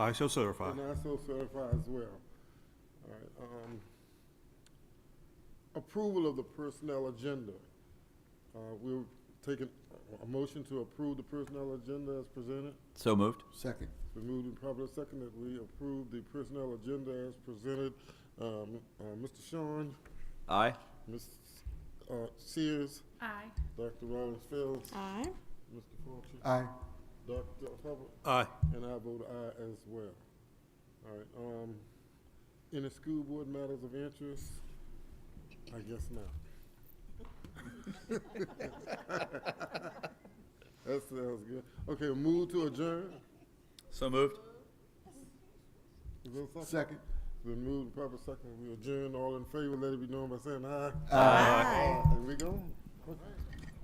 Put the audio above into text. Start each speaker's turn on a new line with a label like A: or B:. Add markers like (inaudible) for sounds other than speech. A: I shall certify.
B: And I so certify as well. All right, um, approval of the personnel agenda. Uh, we're taking a- a motion to approve the personnel agenda as presented.
C: So moved.
D: Second.
B: It's been moved and properly second that we approve the personnel agenda as presented. Um, uh, Mr. Sean,
C: Aye.
B: Ms. Uh, Sears,
E: Aye.
B: Dr. Rollins Fields,
E: Aye.
B: Mr. Fulcher,
D: Aye.
B: Dr. Hubbard,
A: Aye.
B: And I vote aye as well. All right, um, any school board matters of interest? I guess not. (laughs) That sounds good. Okay, move to adjourn?
C: So moved.
B: Is there a second?
D: Second.
B: Then move to proper second, we adjourn, all in favor, let it be known by saying aye.
D: Aye.
B: Aye. And we go? Okay.